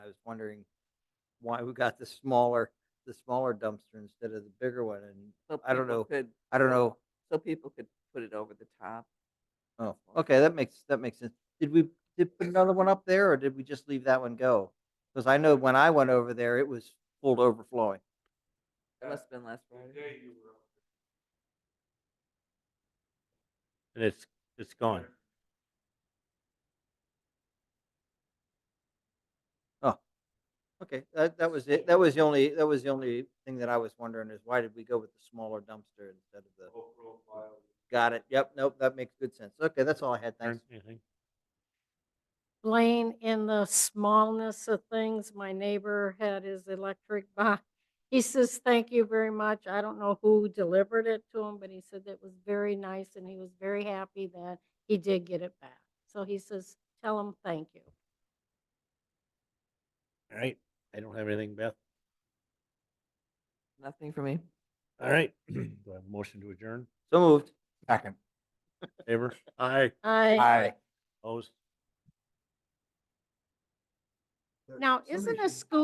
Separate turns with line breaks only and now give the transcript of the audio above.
wondering why we got the smaller, the smaller dumpster instead of the bigger one, and
So
I don't
people
know.
could-
I don't know.
So people could put it over the top.
Oh, okay, that makes, that makes sense. Did we, did put another one up there, or did we just leave that one go? Because I know when I went over there, it was full to overflowing.
It
Uh,
Yeah.
must have been last
The
Friday.
day you were up
and it's, it's gone.
there.
Okay, that, that was it. That was the only, that was the only thing that I was wondering is why did we go with the smaller dumpster instead of the,
Low profile.
got it. Yep, nope, that makes good sense. Okay, that's all I had.
Aaron,
Thanks.
anything?
Blaine, in the smallness of things, my neighbor had his electric box. He says, thank you very much. I don't know who delivered it to him, but he said that was very nice and he was very happy that he did get it back. So he says, tell him thank you.
All right, I don't have anything, Beth.
Nothing for me.
All right, do I have a motion to adjourn?
So moved.
Second.
Favor? Aye.
I.
Aye.
Opposed?
Now, isn't a school?